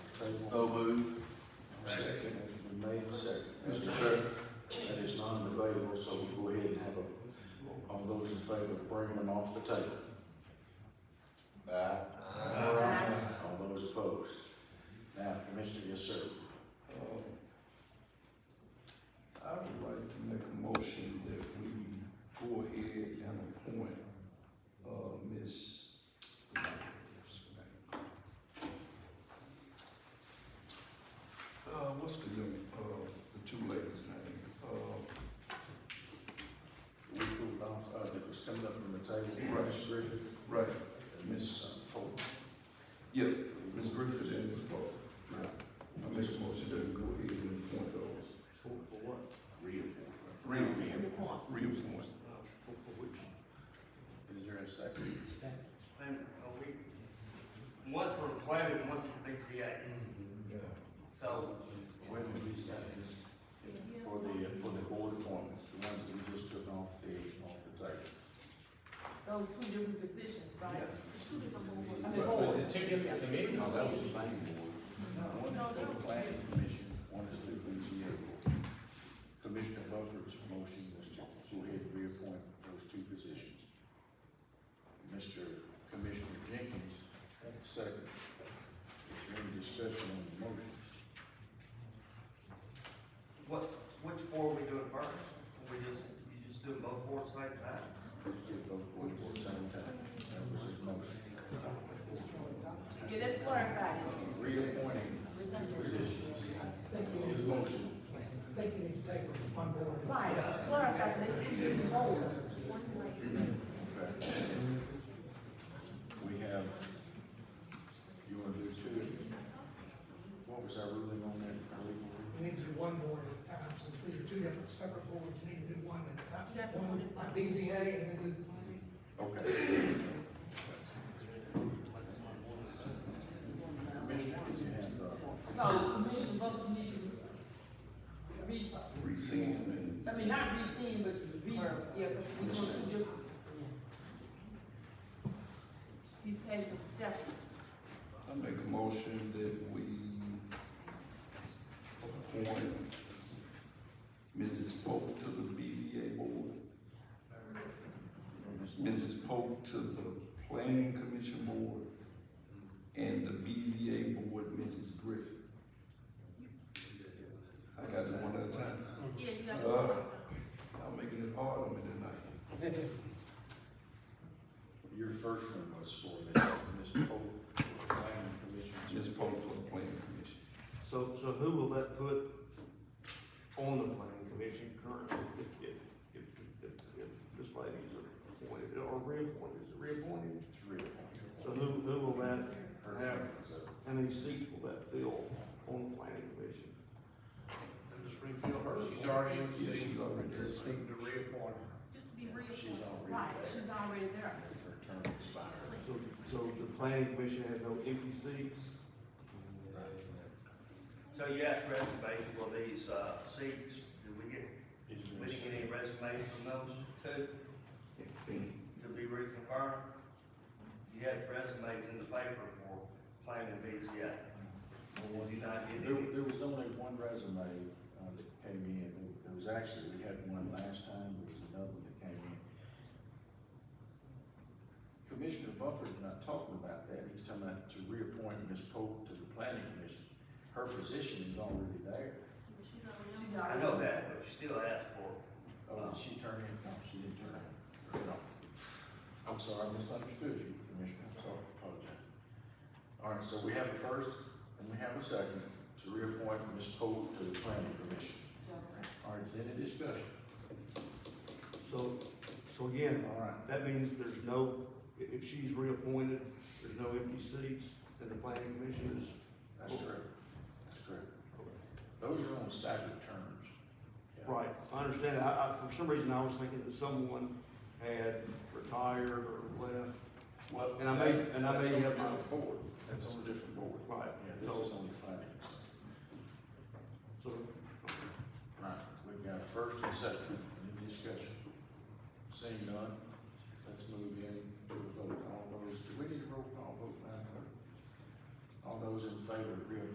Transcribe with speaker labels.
Speaker 1: So moved.
Speaker 2: Second.
Speaker 3: Motion's been made and seconded.
Speaker 2: Mr. Chair.
Speaker 3: That is non-debatable, so we'll go ahead and have a, all those in favor of bringing them off the table. Aye. All those opposed. Now, Commissioner, yes, sir.
Speaker 2: Uh, I would like to make a motion that we go ahead and appoint, uh, Ms. Uh, what's the young, uh, the two ladies' name? Uh,
Speaker 3: We pulled off, uh, that was coming up from the table,
Speaker 2: Right.
Speaker 3: Ms. Griffin,
Speaker 2: right,
Speaker 3: and uh, Ms. Pope.
Speaker 2: yeah, Ms. Griffith and Ms. Pope. Right. I make a motion that we go ahead and appoint those.
Speaker 3: For what? Reappointment.
Speaker 2: Reappoint. Reappoint.
Speaker 3: Is there a second?
Speaker 4: And are we, one's for the plat and one's for BCA, so.
Speaker 3: When did we start this? For the, uh, for the board appointments, the ones that we just took off the, off the table.
Speaker 5: Those two different positions, right? It's two different boards.
Speaker 2: But- but
Speaker 5: boards.
Speaker 6: Two different committees.
Speaker 3: No, that was the same board. One is for the planning commission, one is for the BZA board. Commissioner Buzzard's motion was to go ahead and reappoint those two positions. Mr. Commissioner Jenkins, second. Is there any discussion on the motion?
Speaker 4: What, which board we doing first? We just, you just do both boards like that?
Speaker 3: Let's get both boards at the same time. That was his motion.
Speaker 5: Yeah, that's clarified.
Speaker 3: Reappointing positions. His motion.
Speaker 5: Right, clarified, that's two different boards.
Speaker 3: Okay. We have, you wanna do two? What was our ruling on that? Our legal ruling?
Speaker 7: You need to do one board at a time, since these are two different separate boards, you need to do one at a
Speaker 5: You have to
Speaker 7: time.
Speaker 5: do one
Speaker 7: One
Speaker 5: at a time.
Speaker 7: at BZA and then do
Speaker 3: Okay. Commissioner, did you have, uh,
Speaker 8: So Commissioner Buffer need to re,
Speaker 2: Rescind.
Speaker 8: I mean, not rescind, but re, yeah, because we go two different.
Speaker 5: He's taking them separate.
Speaker 2: I make a motion that we appoint Mrs. Pope to the BZA board, Mrs. Pope to the planning commission board, and the BZA board, Mrs. Griffin. I got it one at a time.
Speaker 5: Yeah, you got
Speaker 2: Uh,
Speaker 5: to.
Speaker 2: Y'all making it hard on me tonight.
Speaker 3: your first one was for the, Ms. Pope, planning commission.
Speaker 2: Mrs. Pope for the planning commission.
Speaker 9: So, so who will that put on the planning commission currently if, if, if, if, if this lady's appointed or reappointed, is it reappointed?
Speaker 3: It's reappointed.
Speaker 9: So who, who will that,
Speaker 3: Her term is up.
Speaker 9: how many seats will that fill on the planning commission?
Speaker 6: She's already in the
Speaker 2: Yeah,
Speaker 6: seat.
Speaker 2: she's already in the
Speaker 6: Just
Speaker 2: seat.
Speaker 6: seek to reappoint her.
Speaker 5: Just to be
Speaker 3: She's
Speaker 5: real.
Speaker 3: already
Speaker 5: Right,
Speaker 3: there.
Speaker 5: she's already there.
Speaker 3: Her term expired.
Speaker 9: So, so the planning commission has no empty seats?
Speaker 4: So you asked resumes for these, uh, seats, did we get,
Speaker 3: Is there
Speaker 4: we
Speaker 3: a
Speaker 4: didn't get any resumes from those two? To be reconfirmed? You had resumes in the paper for planning BCA. Well, you not get
Speaker 3: There,
Speaker 4: any?
Speaker 3: there was only one resume, uh, that came in, There- there was actually, we had one last time, there was another one that came in. Commissioner Buffer's not talking about that, he's talking about to reappoint Ms. Pope to the planning commission. Her position is already there,
Speaker 5: She's
Speaker 4: I
Speaker 5: already.
Speaker 4: know that, but you still asked for
Speaker 3: oh, did she turn in, no, she didn't turn in. No. I'm sorry, I misunderstood you, Commissioner, I'm sorry, apologize. All right, so we have a first, and we have a second, to reappoint Ms. Pope to the planning commission. All right, is there any discussion?
Speaker 9: So, so again,
Speaker 3: All right,
Speaker 9: that means there's no, i- if she's reappointed, there's no empty seats, then the planning commission is
Speaker 3: That's correct. That's correct. Those are on staggered terms.
Speaker 9: Right, I understand, I, I, for some reason, I was thinking that someone had retired or left,
Speaker 3: Well,
Speaker 9: And I may-
Speaker 3: that-
Speaker 9: and I may
Speaker 3: that's on a
Speaker 9: have my-
Speaker 3: different board. That's on a different board.
Speaker 9: right,
Speaker 3: Yeah, this is
Speaker 9: so,
Speaker 3: on the planning.
Speaker 9: so,
Speaker 3: Right, we've got a first and second, any discussion? Seeing none, let's move in to a vote. All those, do we need a roll call vote now? All those in favor of reappointing